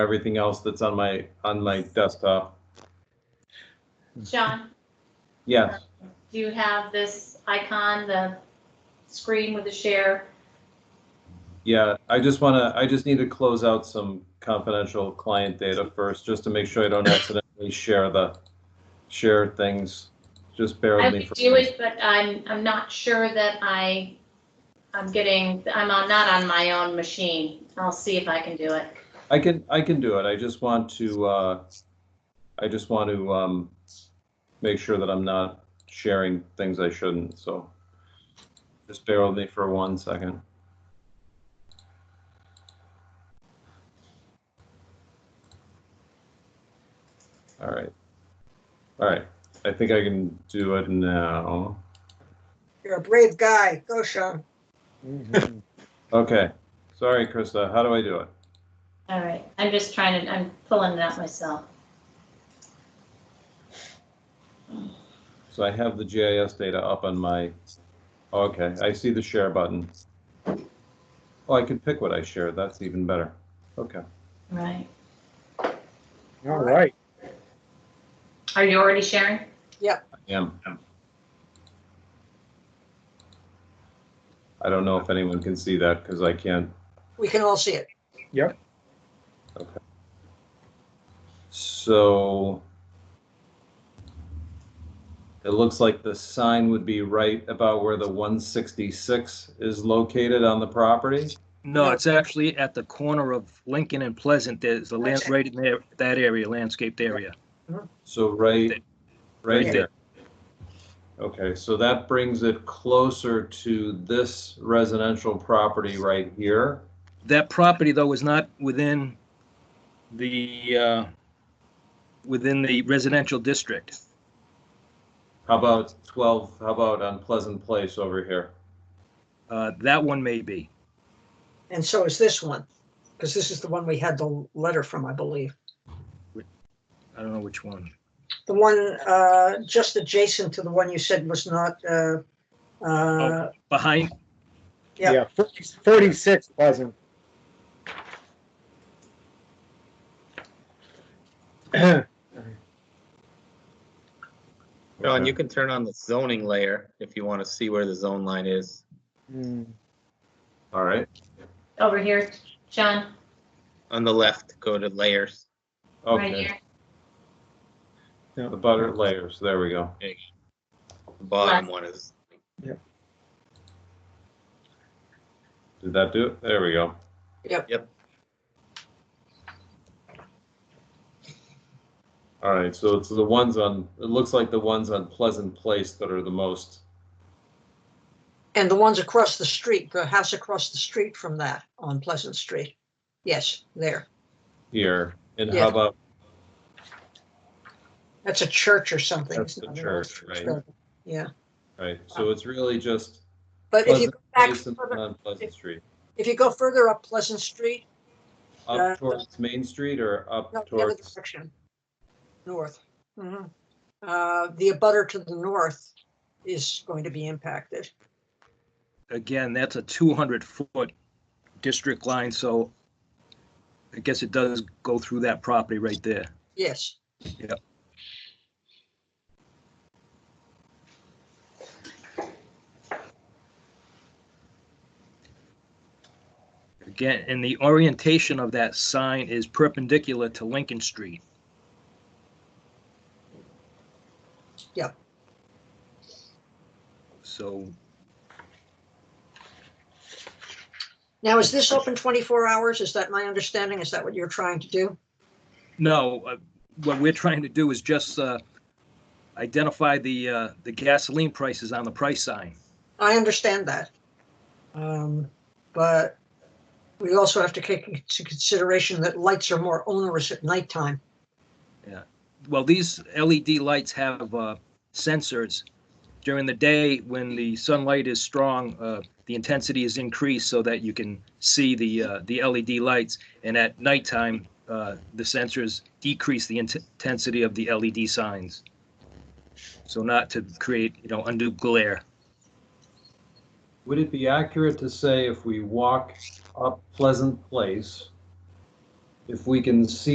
everything else that's on my, on my desktop. John, Yes, do you have this icon, the screen with the share? yeah, I just want to, I just need to close out some confidential client data first, just to make sure I don't accidentally share the, share things. Just bear I with me. would for do it, but I'm, I'm not sure that I, I'm getting, I'm on- not on my own machine. I'll see if I can do it. I can, I can do it. I just want to, uh, I just want to, um, make sure that I'm not sharing things I shouldn't, so. Just bear with me for one second. All right. All right. I think I can do it now. You're a brave guy. Go, Sean. Mhm. Okay. Sorry, Krista. How do I do it? All right, I'm just trying to, I'm pulling it out myself. So I have the GIS data up on my, okay, I see the share button. Oh, I can pick what I share, that's even better. Okay. Right. All right. Are you already sharing? Yeah. I don't know if anyone can see that because I can't. We can all see it. So it looks like the sign would be right about where the 166 is located on the property. No, it's actually at the corner of Lincoln and Pleasant. There's a land, Okay. right in there, that area, landscaped area. So right, right Right there. Okay, so that brings it closer to this residential property right here. That property, though, is not within the, uh, within the residential district. How about 12, how about on Pleasant Place over here? Uh, That one may be. And so is this one, because this is the one we had the letter from, I believe. I don't know which one. The one uh, just adjacent to the one you said was not, uh, uh, Oh. Behind, Yeah. Yeah, 40 46 Pleasant. John, Okay. you can turn on the zoning layer if you want to see where the zone line is. Hmm. All right. Over here, John, On the left, go to layers. right Okay, here, the butter layers, there we go. The bottom Left. one is, Did that do it? There we go. Yep. Yep. All right, so it's the ones on, it looks like the ones on Pleasant Place that are the most, and the ones across the street, the house across the street from that on Pleasant Street. Yes, there. here. And Yeah. how about That's a church or something. That's the It's not an church, old- right. Yeah, Right, so it's really just but if you Pleasant uh, go back Place and further, on Pleasant Street. if you go further up Pleasant Street, Uh, Up towards Main Street or up No, the other towards, direction, north. Mhm. Uh, The abutter to the north is going to be impacted. again, that's a 200-foot district line, so I guess it does go through that property right there. Yes, Again, and the orientation of that sign is perpendicular to Lincoln Street. Yep. So, now is this open 24 hours? Is that my understanding? Is that what you're trying to do? no, uh, what we're trying to do is just uh, identify the, uh, the gasoline prices on the price sign. I understand that. Um, But we also have to take into consideration that lights are more onerous at nighttime. Well, these LED lights have uh, sensors. During the day, when the sunlight is strong, uh, the intensity is increased so that you can see the, uh, the LED lights. And at nighttime, uh, the sensors decrease the int- intensity of the LED signs. So not to create, you know, undue glare. would it be accurate to say if we walk up Pleasant Place, if we can see